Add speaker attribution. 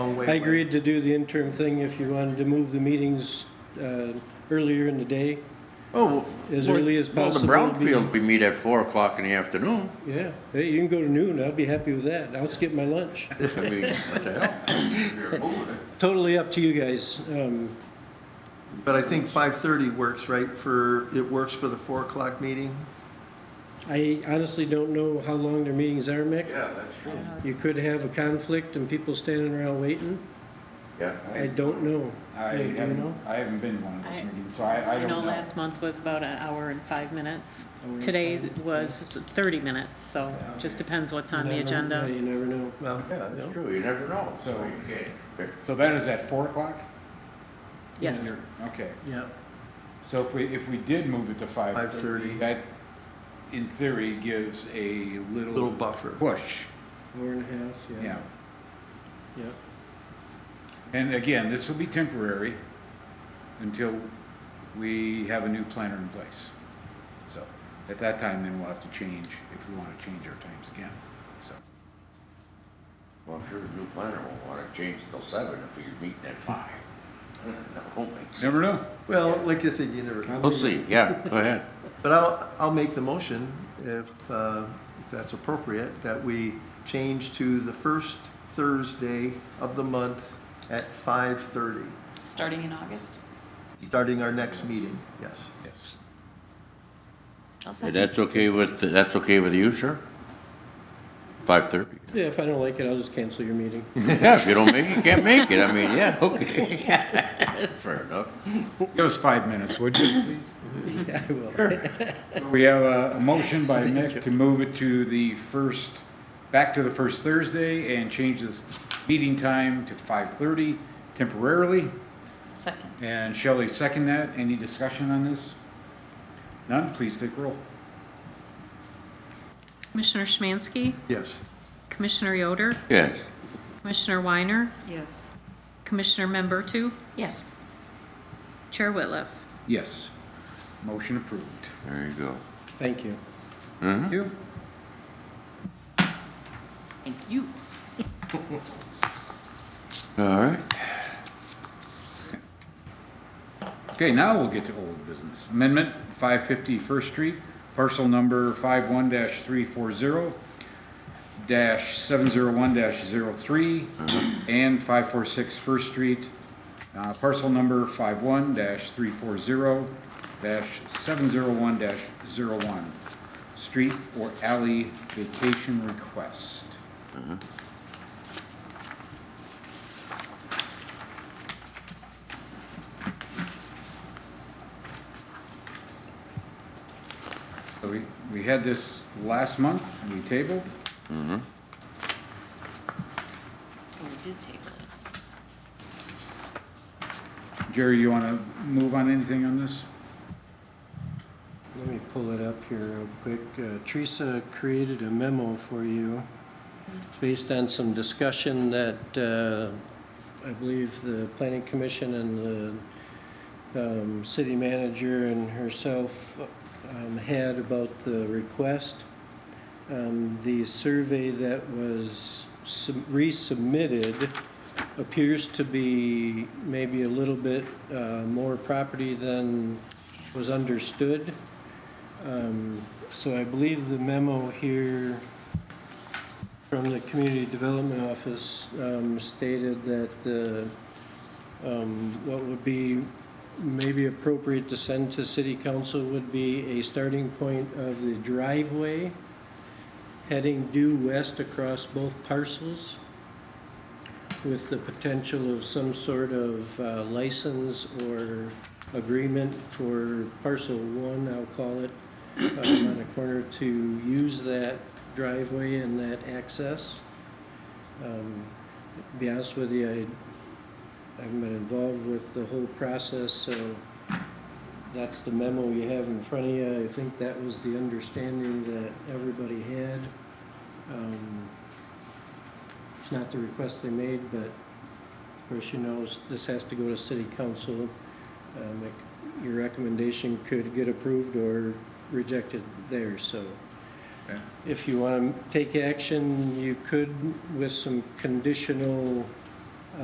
Speaker 1: Oh,
Speaker 2: long way
Speaker 3: I
Speaker 2: away.
Speaker 3: agreed to do the interim thing if you wanted to move the meetings uh, earlier in the day.
Speaker 2: Oh,
Speaker 3: As
Speaker 2: well,
Speaker 3: early as possible
Speaker 2: Well,
Speaker 3: would
Speaker 2: the
Speaker 3: be-
Speaker 2: brownfield, we meet at four o'clock in the afternoon.
Speaker 3: Yeah, hey, you can go to noon, I'll be happy with that. I'll skip my lunch.
Speaker 2: I mean, what the hell?
Speaker 3: Totally up to you guys. Um,
Speaker 1: But I think 5:30 works, right, for, it works for the 4 o'clock meeting?
Speaker 3: I honestly don't know how long their meetings are, Mick.
Speaker 2: Yeah, that's true.
Speaker 3: You could have a conflict and people standing around waiting.
Speaker 2: Yeah.
Speaker 3: I don't know.
Speaker 4: I
Speaker 3: Do you know?
Speaker 4: haven't, I haven't been to one of those
Speaker 5: I-
Speaker 4: meetings, so I, I
Speaker 5: I
Speaker 4: don't
Speaker 5: know
Speaker 4: know.
Speaker 5: last month was about an hour and five minutes. Today's was thirty minutes, so just depends what's on
Speaker 3: Never-
Speaker 5: the
Speaker 3: yeah,
Speaker 5: agenda.
Speaker 3: You never know.
Speaker 1: Well,
Speaker 2: Yeah, that's true, you never know, so
Speaker 4: So-
Speaker 2: you can't. pick-
Speaker 4: So that is at four o'clock?
Speaker 5: Yes,
Speaker 4: You're- Okay,
Speaker 3: Yeah.
Speaker 4: so if we, if we did move it to five
Speaker 1: 5:30.
Speaker 4: thirty, that in theory gives a little.
Speaker 1: Little buffer.
Speaker 4: Push,
Speaker 3: Hour and a half, yeah.
Speaker 4: yeah.
Speaker 3: Yeah.
Speaker 4: And again, this will be temporary until we have a new planner in place. So at that time, then we'll have to change, if we want to change our times again, so.
Speaker 2: Well, I'm sure the new planner won't wanna change till seven if you're meeting at five. That won't make sense.
Speaker 4: Never know.
Speaker 1: well, like I said, you never,
Speaker 2: We'll see, yeah, go ahead.
Speaker 1: but I'll, I'll make the motion if, uh, if that's appropriate, that we change to the first Thursday of the month at 5:30,
Speaker 6: Starting in August?
Speaker 1: starting our next meeting, yes.
Speaker 4: Yes.
Speaker 6: I'll
Speaker 2: And
Speaker 6: second.
Speaker 2: that's okay with, that's okay with you, sir? Five thirty?
Speaker 3: Yeah, if I don't like it, I'll just cancel your meeting.
Speaker 2: Yeah, if you don't make it, you can't make it, I mean, yeah, okay. Fair enough.
Speaker 4: Give us five minutes, would you, please?
Speaker 3: Yeah, I will.
Speaker 4: We have a, a motion by Mick to move it to the first, back to the first Thursday and change this meeting time to five thirty temporarily.
Speaker 6: Second.
Speaker 4: And Shelley second that. Any discussion on this? None? Please take roll.
Speaker 5: Commissioner Schmansky,
Speaker 1: Yes.
Speaker 5: Commissioner Yoder,
Speaker 2: Yes,
Speaker 5: Commissioner Weiner,
Speaker 6: Yes.
Speaker 5: Commissioner Membertu,
Speaker 6: Yes.
Speaker 5: Chair Whitliff.
Speaker 4: Yes. Motion approved.
Speaker 2: there you go.
Speaker 3: Thank you. Mm-hmm.
Speaker 4: Thank you.
Speaker 6: Thank you.
Speaker 2: All right.
Speaker 4: Okay, now we'll get to old business. Amendment 550 First Street, parcel number 51-340-701-03, and 546 First Street, uh, parcel number 51-340-701-01, street or alley vacation request. So we, we had this last month, we tabled.
Speaker 6: Oh, we did table it.
Speaker 4: Jerry, you want to move on anything on this?
Speaker 3: Let me pull it up here real quick. Uh, Teresa created a memo for you based on some discussion that uh, I believe the planning commission and the um, city manager and herself um, had about the request. Um, The survey that was sub- resubmitted appears to be maybe a little bit uh, more property than was understood. Um, So I believe the memo here from the Community Development Office um, stated that uh, um, what would be maybe appropriate to send to city council would be a starting point of the driveway heading due west across both parcels with the potential of some sort of uh, license or agreement for parcel one, I'll call it, um, on the corner to use that driveway and that access. Um, to Be honest with you, I- I haven't been involved with the whole process, so that's the memo you have in front of you. I think that was the understanding that everybody had. Um, It's not the request they made, but of course, you know, this has to go to city council. Um, it your recommendation could get approved or rejected there, so.
Speaker 4: Okay.
Speaker 3: If you want to take action, you could with some conditional